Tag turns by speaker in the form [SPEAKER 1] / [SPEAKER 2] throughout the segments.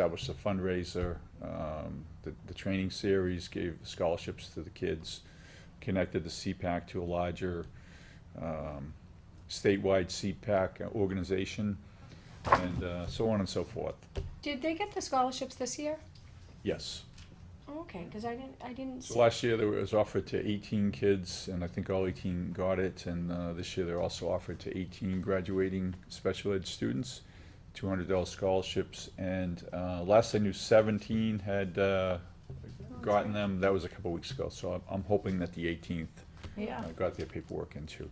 [SPEAKER 1] established a fundraiser. Um, the, the training series gave scholarships to the kids, connected the CPAC to a larger um, statewide CPAC organization, and uh, so on and so forth.
[SPEAKER 2] Did they get the scholarships this year?
[SPEAKER 1] Yes.
[SPEAKER 2] Oh, Okay, because I didn't, I didn't
[SPEAKER 1] So
[SPEAKER 2] see.
[SPEAKER 1] last year, there was offered to 18 kids, and I think all 18 got it, and uh, this year, they're also offered to 18 graduating special ed students, $200 scholarships, and uh, last I knew, 17 had uh, gotten them, that was a couple weeks ago, so I'm- I'm hoping that the 18th
[SPEAKER 3] Yeah.
[SPEAKER 1] uh, got their paperwork in too.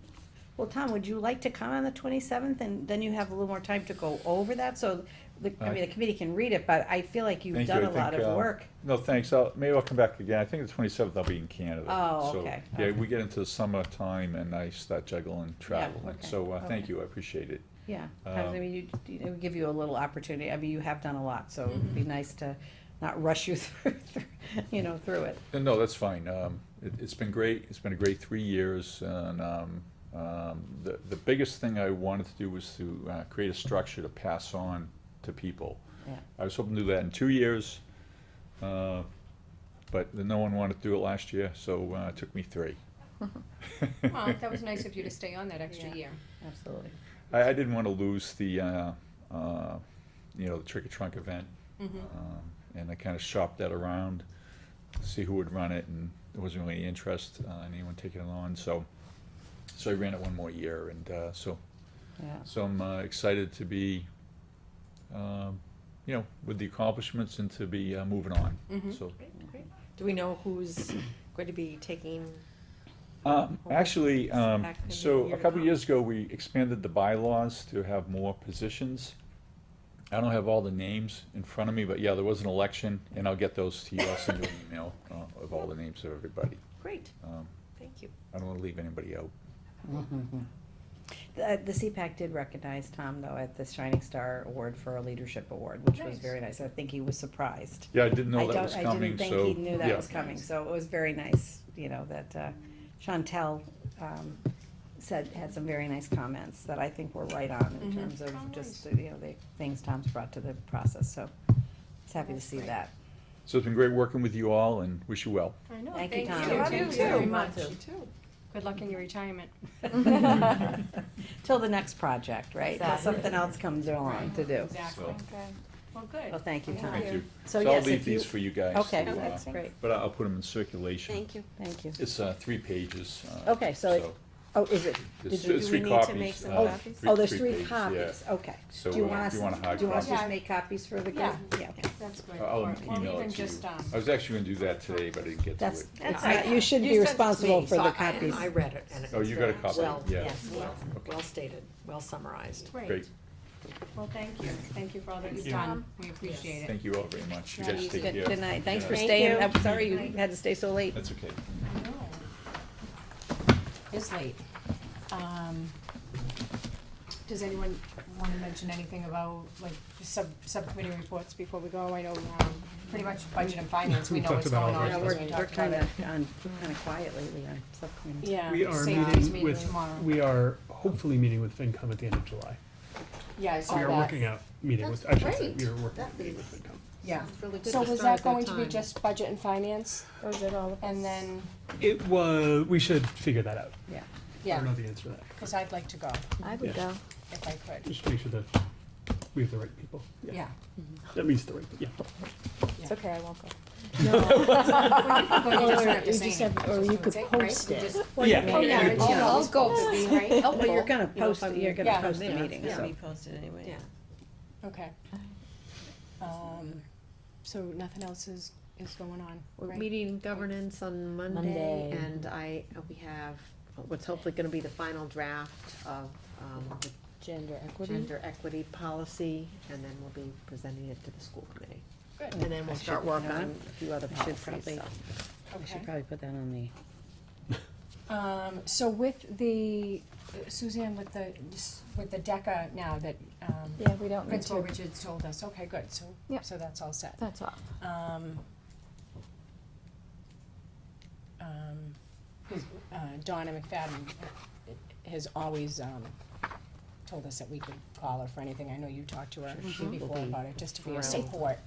[SPEAKER 3] Well, Tom, would you like to come on the twenty-seventh, and then you have a little more time to go over that, so, the, I mean, the committee can read it, but I feel like you've
[SPEAKER 1] Uh, Thank you,
[SPEAKER 3] done
[SPEAKER 1] I
[SPEAKER 3] a lot
[SPEAKER 1] think, uh,
[SPEAKER 3] of work.
[SPEAKER 1] No, thanks, I'll, maybe I'll come back again, I think the 27th I'll be in Canada.
[SPEAKER 3] Oh,
[SPEAKER 1] So,
[SPEAKER 3] okay,
[SPEAKER 1] Yeah,
[SPEAKER 3] okay.
[SPEAKER 1] we get into the summertime, and I start juggling traveling,
[SPEAKER 3] okay,
[SPEAKER 1] so uh, thank
[SPEAKER 3] okay.
[SPEAKER 1] you, I appreciate it.
[SPEAKER 3] Yeah, I
[SPEAKER 1] Um,
[SPEAKER 3] mean, you, you know, give you a little opportunity, I mean, you have done a lot, so it'd
[SPEAKER 1] Mm-hmm.
[SPEAKER 3] be nice to not rush you through, through- you know, through it.
[SPEAKER 1] Uh, No, that's fine. Um, it, it's been great. It's been a great three years, and um, um, the the biggest thing I wanted to do was to uh, create a structure to pass on to people.
[SPEAKER 3] Yeah.
[SPEAKER 1] I was hoping to do that in two years, uh, but no one wanted to do it last year, so uh, it took me three.
[SPEAKER 2] Well, that was nice of you to stay on that extra
[SPEAKER 3] Yeah.
[SPEAKER 2] year.
[SPEAKER 3] Absolutely.
[SPEAKER 1] I, I didn't want to lose the, uh, uh, you know, the trick or trunk event, um, and I kind of shopped that around, see who would run it, and there wasn't really any interest uh, in anyone taking it on. So, so I ran it one more year, and uh, so
[SPEAKER 3] Yeah,
[SPEAKER 1] so I'm uh, excited to be, um, you know, with the accomplishments and to be uh, moving on. So
[SPEAKER 4] Do we know who's going to be taking?
[SPEAKER 1] Um, actually, um,
[SPEAKER 4] Back in the
[SPEAKER 1] so
[SPEAKER 4] year
[SPEAKER 1] a couple
[SPEAKER 4] now.
[SPEAKER 1] years ago, we expanded the bylaws to have more positions. I don't have all the names in front of me, but yeah, there was an election, and I'll get those to you, I'll send you an email, uh, of all the names of everybody.
[SPEAKER 4] Great,
[SPEAKER 1] Um,
[SPEAKER 4] thank you.
[SPEAKER 1] I don't wanna leave anybody out.
[SPEAKER 3] the, uh, the CPAC did recognize Tom, though, at the Shining Star Award for a leadership award, which was
[SPEAKER 2] Nice.
[SPEAKER 3] very nice, I think he was surprised.
[SPEAKER 1] Yeah, I didn't
[SPEAKER 3] I
[SPEAKER 1] know that
[SPEAKER 3] don't-
[SPEAKER 1] was coming,
[SPEAKER 3] I didn't
[SPEAKER 1] so,
[SPEAKER 3] think he knew that
[SPEAKER 1] yeah,
[SPEAKER 3] was coming, so it was very nice, you know, that uh, Chantel um, said, had some very nice comments that I think were right on in
[SPEAKER 2] Mhm.
[SPEAKER 3] terms of
[SPEAKER 2] Oh,
[SPEAKER 3] just, uh, you know, the things Tom's brought to the process, so it's happy to
[SPEAKER 2] That's
[SPEAKER 3] see
[SPEAKER 2] great.
[SPEAKER 3] that.
[SPEAKER 1] so it's been great working with you all, and wish you well.
[SPEAKER 2] I know,
[SPEAKER 3] Thank
[SPEAKER 2] thank
[SPEAKER 3] you,
[SPEAKER 2] you.
[SPEAKER 3] Tom.
[SPEAKER 4] You
[SPEAKER 2] Thank
[SPEAKER 4] too.
[SPEAKER 2] you very
[SPEAKER 4] You
[SPEAKER 2] much.
[SPEAKER 3] too.
[SPEAKER 2] Good luck in your retirement.
[SPEAKER 3] Till the next project, right? Till
[SPEAKER 4] Exactly.
[SPEAKER 3] something else comes along to do.
[SPEAKER 2] Exactly. Well, good.
[SPEAKER 3] Well, thank you,
[SPEAKER 2] Thank
[SPEAKER 3] Tom.
[SPEAKER 1] Thank you.
[SPEAKER 3] So
[SPEAKER 1] I'll
[SPEAKER 3] yes,
[SPEAKER 1] leave
[SPEAKER 3] if you-
[SPEAKER 1] these for you guys.
[SPEAKER 3] Okay,
[SPEAKER 1] to, uh,
[SPEAKER 3] that's great,
[SPEAKER 1] But I'll put them in circulation.
[SPEAKER 4] Thank you.
[SPEAKER 3] thank you.
[SPEAKER 1] It's, uh, three pages. uh,
[SPEAKER 3] Okay, so it- Oh, is it,
[SPEAKER 1] There's
[SPEAKER 3] Did you-
[SPEAKER 1] there's
[SPEAKER 4] Do
[SPEAKER 1] three
[SPEAKER 4] we need to
[SPEAKER 1] copies.
[SPEAKER 4] make some
[SPEAKER 1] uh,
[SPEAKER 4] copies?
[SPEAKER 3] oh, there's
[SPEAKER 1] pages,
[SPEAKER 3] three
[SPEAKER 1] yeah.
[SPEAKER 3] copies, okay.
[SPEAKER 1] So,
[SPEAKER 3] Do you
[SPEAKER 1] uh,
[SPEAKER 3] want us,
[SPEAKER 1] you want a hard
[SPEAKER 3] do you want us to just
[SPEAKER 2] copy?
[SPEAKER 3] make copies for the group?
[SPEAKER 2] Yeah.
[SPEAKER 3] Yeah. okay.
[SPEAKER 2] That's good.
[SPEAKER 1] I'll
[SPEAKER 2] Or- or
[SPEAKER 1] email
[SPEAKER 2] even
[SPEAKER 1] it to you.
[SPEAKER 2] just, um,
[SPEAKER 1] I was actually gonna do that today, but I didn't get to
[SPEAKER 3] That's,
[SPEAKER 1] it.
[SPEAKER 3] that's,
[SPEAKER 4] I-
[SPEAKER 3] not- you should be
[SPEAKER 4] you sent it to
[SPEAKER 3] responsible
[SPEAKER 4] me,
[SPEAKER 3] for
[SPEAKER 4] so
[SPEAKER 3] the
[SPEAKER 4] I-
[SPEAKER 3] copies.
[SPEAKER 4] I read it and it
[SPEAKER 1] Oh,
[SPEAKER 4] was
[SPEAKER 1] you got a
[SPEAKER 4] very
[SPEAKER 1] copy,
[SPEAKER 4] well,
[SPEAKER 1] yeah.
[SPEAKER 4] yes, well,
[SPEAKER 1] Okay.
[SPEAKER 4] well stated, well summarized.
[SPEAKER 2] Great.
[SPEAKER 1] Great,
[SPEAKER 2] Well, thank you. Thank you for all that you've
[SPEAKER 1] you.
[SPEAKER 2] done. We appreciate it.
[SPEAKER 1] thank you all very much. You
[SPEAKER 2] Not
[SPEAKER 1] guys
[SPEAKER 2] easy.
[SPEAKER 1] take
[SPEAKER 3] Good
[SPEAKER 1] care.
[SPEAKER 3] good night, thanks for
[SPEAKER 1] Yeah.
[SPEAKER 4] Thank
[SPEAKER 3] staying,
[SPEAKER 4] you.
[SPEAKER 3] I'm sorry you had to stay so late.
[SPEAKER 1] That's okay.
[SPEAKER 2] I know. It's late. Um, Does anyone want to mention anything about, like, sub, subcommittee reports before we go? I know, um, pretty much budget and finance, we know what's going on.
[SPEAKER 3] Yeah,
[SPEAKER 2] because
[SPEAKER 3] we're,
[SPEAKER 2] we
[SPEAKER 3] we're
[SPEAKER 2] talked about
[SPEAKER 3] kind
[SPEAKER 2] it.
[SPEAKER 3] of, on, kind of quiet lately on subcommittee.
[SPEAKER 2] Yeah.
[SPEAKER 5] We are
[SPEAKER 2] Safety's
[SPEAKER 5] meeting with,
[SPEAKER 2] tomorrow.
[SPEAKER 5] we are hopefully meeting with FinCom at the end of July.
[SPEAKER 2] Yeah, I saw
[SPEAKER 5] We
[SPEAKER 2] that.
[SPEAKER 5] are working out, meeting with, I should say,
[SPEAKER 2] great.
[SPEAKER 5] we are working out meeting with FinCom.
[SPEAKER 2] Yeah.
[SPEAKER 4] Really good
[SPEAKER 2] So
[SPEAKER 4] to
[SPEAKER 2] was that
[SPEAKER 4] start at
[SPEAKER 2] going to be
[SPEAKER 4] time.
[SPEAKER 2] just budget and finance,
[SPEAKER 3] Or is it all of
[SPEAKER 2] and then,
[SPEAKER 5] It was, we should figure that out.
[SPEAKER 3] Yeah.
[SPEAKER 5] I don't
[SPEAKER 2] yeah,
[SPEAKER 5] know the answer to that.
[SPEAKER 2] because I'd like to go,
[SPEAKER 4] I
[SPEAKER 5] would Yeah.
[SPEAKER 2] if I could,
[SPEAKER 5] Just make sure that we have the right people.
[SPEAKER 2] yeah.
[SPEAKER 5] That means the right, yeah.
[SPEAKER 2] It's
[SPEAKER 4] okay, I won't go.
[SPEAKER 2] Or
[SPEAKER 6] you just have- or you could post it.
[SPEAKER 2] Oh, yeah,
[SPEAKER 5] Yeah.
[SPEAKER 2] it's, yeah, I'll go,
[SPEAKER 3] Oh, well, you're gonna
[SPEAKER 4] You know,
[SPEAKER 3] post,
[SPEAKER 4] if
[SPEAKER 3] it-
[SPEAKER 4] I'm-
[SPEAKER 3] you're gonna
[SPEAKER 2] yeah,
[SPEAKER 3] post the meeting,
[SPEAKER 4] yeah.
[SPEAKER 3] so.
[SPEAKER 6] posted anyway.
[SPEAKER 4] Yeah.
[SPEAKER 2] okay. Um, so nothing else is, is going on,
[SPEAKER 4] We're
[SPEAKER 2] right?
[SPEAKER 4] meeting governance on Monday,
[SPEAKER 6] Monday.
[SPEAKER 4] and I, we have what's hopefully gonna be the final draft of, um, the
[SPEAKER 6] Gender equity.
[SPEAKER 4] gender equity policy, and then we'll be presenting it to the school committee.
[SPEAKER 2] Good.
[SPEAKER 4] And then we'll
[SPEAKER 3] I
[SPEAKER 4] start
[SPEAKER 3] should- you
[SPEAKER 4] work
[SPEAKER 3] know
[SPEAKER 4] on a few other
[SPEAKER 3] I should
[SPEAKER 4] policies,
[SPEAKER 3] probably-
[SPEAKER 4] so.
[SPEAKER 2] Okay.
[SPEAKER 3] We should probably put that on the.
[SPEAKER 2] Um, so with the, Suzanne, with the, with the DECA now that, um,
[SPEAKER 6] Yeah, we don't need
[SPEAKER 2] Principal
[SPEAKER 6] to.
[SPEAKER 2] Richards told us, okay, good, so,
[SPEAKER 6] Yep.
[SPEAKER 2] so that's all set.
[SPEAKER 6] That's off.
[SPEAKER 2] Um, um, his- uh, Donna McFadden has always, um, told us that we could call her for anything. I know you talked to her
[SPEAKER 4] Sure, she will
[SPEAKER 2] before
[SPEAKER 4] be
[SPEAKER 2] about it, just to be a
[SPEAKER 4] thrilled.
[SPEAKER 2] support,